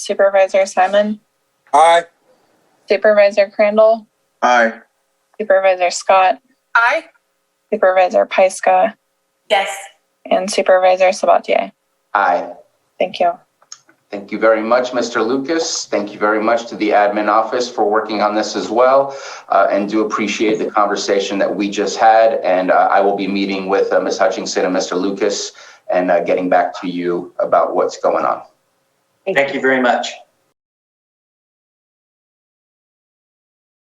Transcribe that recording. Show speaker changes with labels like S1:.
S1: Supervisor Simon,
S2: Aye.
S1: Supervisor Crandall,
S2: Aye.
S1: Supervisor Scott,
S3: Aye.
S1: Supervisor Pyska,
S3: Yes.
S1: and Supervisor Sabatier.
S4: Aye.
S1: Thank you.
S4: Thank you very much, Mr. Lucas. Thank you very much to the admin office for working on this as well. uh, and do appreciate the conversation that we just had. And uh, I will be meeting with uh, Ms. Hutchinson and Mr. Lucas and uh, getting back to you about what's going on.
S5: Thank you very much.